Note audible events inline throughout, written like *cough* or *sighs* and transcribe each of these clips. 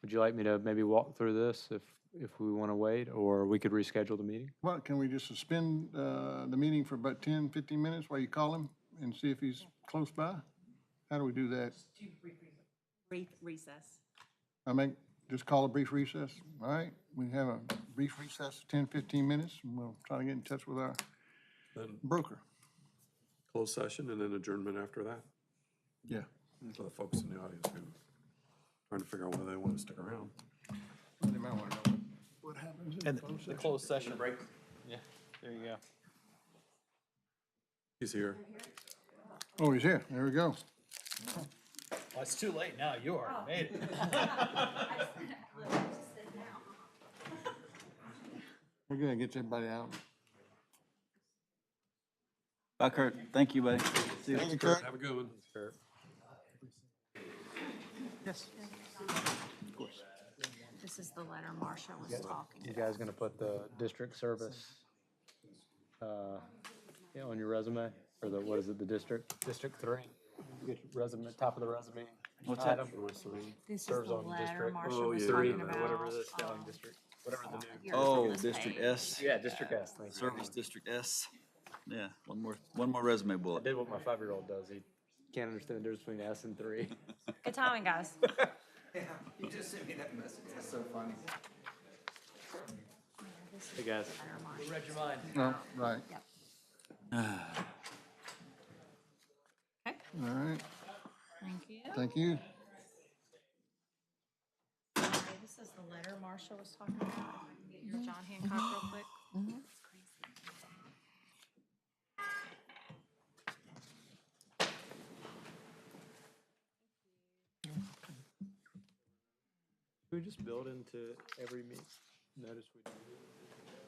Would you like me to maybe walk through this if, if we want to wait, or we could reschedule the meeting? What, can we just suspend uh, the meeting for about 10, 15 minutes while you call him and see if he's close by? How do we do that? brief recess. I make, just call a brief recess, all right? We have a brief recess, 10, 15 minutes, and we'll try to get in touch with our Then broker. closed session and then adjournment after that. Yeah. For the folks in the audience who trying to figure out whether they want to stick around. They might want to know what happens in closed session. Closed session. Break. Yeah, there you go. He's here. Oh, he's here, there we go. Well, it's too late now, you already made it. We're gonna get everybody out. Bye, Kurt. Thank you, buddy. See you. Thank you, Kurt. Have a good one. Yes. This is the letter Marsha was talking You about. guys gonna put the district service, uh, yeah, on your resume, or the, what is it, the district? District three. Get your resume, top of the resume. What's that? item. This is Serves the on letter district. Oh, Marsha was yeah, talking yeah. about. Whatever the spelling um, district, whatever the new. here, it's on Oh, this District page. S, Yeah, District S, thank you. Service District S. Yeah, one more, one more resume I bullet. Did what my five-year-old does, he can't understand the difference between S and three. *laughs* Good *laughs* timing, guys. You just sent me that message. That's so funny. Hey, guys. Letter Marsha. Read your mind. No, right, Yep. *sighs* Okay, all right, thank you. thank you. Okay, This is the letter Marsha was talking about. If I can Get your John Hancock real quick. It's crazy. Can we just build into every meet, notice we do?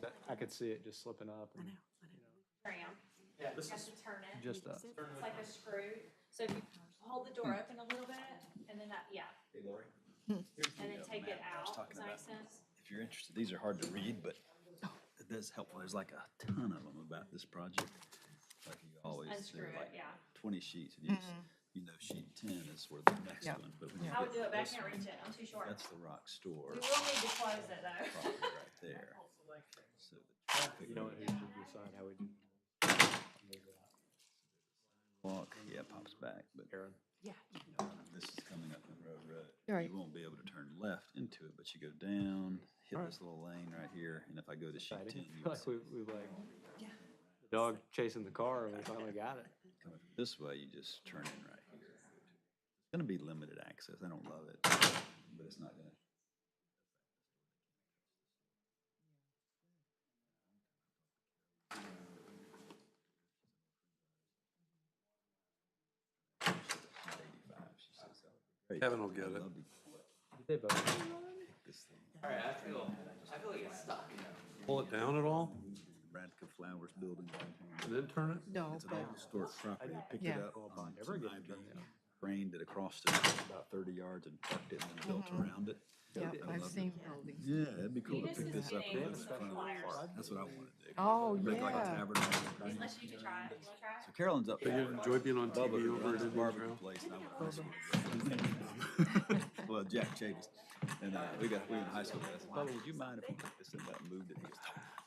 That- I could see it just slipping up and Yeah, this is, turn it. just us. It's like a screw. So if you hold the door open a little bit and then that, yeah, Hey, Lori, and then take it I was out. talking Does that make about- sense? if you're interested, these are hard to read, but it is helpful. There's like a ton of them about this project. Like you always, Unscrew there are it, like yeah. Mm-hmm. twenty sheets. and You just- you know, sheet ten is where the next Yeah. one. but when you I would get do it, but I this can't one, reach it. I'm too short. That's the rock store. We will need to close it though. property Right *laughs* there. So the traffic You know, who should decide how we do? walk, yeah, pops back, but Aaron? Yeah, this is coming up Monroe Road. Right. You won't be able to turn left into it, but you go down, hit this little lane right here, and if I go to sheet exciting. ten, I feel you *laughs* would like we, we like, Yeah. the dog chasing the car and we finally got it. come up this way, you just turn in right here. It's gonna be limited access. I don't love it, but it's not gonna. She says, "Oh, great. Kevin will get I'd it. love to They both. pick this thing. Pull it down at all Radka Flowers building downtown. and then turn it? No, It's an but old historic property. They picked it Yeah. up on some IB, drained it across the, about thirty yards and parked it and then built around it. yeah, I I've love it. seen buildings. Yeah, that'd be cool to Venus pick is Mm-hmm. this up. getting and put it in some front of the flyers. park. That's what I want to do. Oh, Make like a yeah. tabernacle. Unless you can try it. You wanna try So Carolyn's up They there. enjoy being on Bubba TV who over runs at the Indian barbecue Trail. place. and I went to high school *laughs* with him. Well, Jack Chavis. And uh, we got, we were in high school. and I said, Bubba, would you mind if we took this and that moved it? He goes,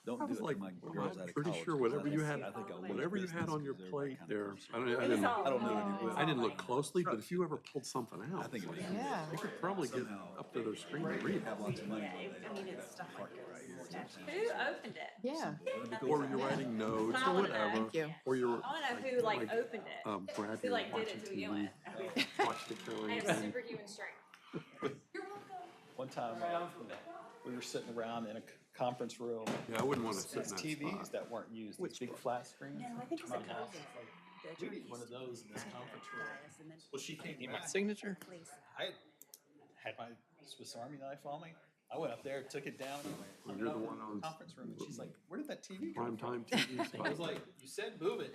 Don't do was it till like, my "Well, girl's I'm out of college. pretty sure 'cause I whatever you had- think- I think I'll leave Whatever you had business on your 'cause everybody plate kinda there, comes I don't, from- I It is didn't, all. I don't know, uh, it's that you- I didn't all like- look closely, but if you ever pulled something I out, think it would be. Yeah. you could probably get up to their screen and read it. Have lots of money. Yeah, it- I mean, it's stuff like this. Who opened it? Yeah. Or you're writing notes I or wanna know. whatever, Thank you. or you're. I wanna know who like opened it. Um, Brad Who here like did watching it to begin TV, with? watched *laughs* the I Carolyn have thing. superhuman strength. You're welcome. one time, uh, we were sitting around in a c- conference room, Yeah, I wouldn't want to sit these in that TVs spot. that weren't used, these big flat screens. No, I think it's a My house. COVID. We need one of those in this conference room. And then Well, she can't get my signature. please. I had my Swiss Army knife on me. I went up there, took it down, Well, hung you're it the up one in on the conference room, and she's like, where did that TV go? *laughs* Primetime TV I spot. was like, you said move it.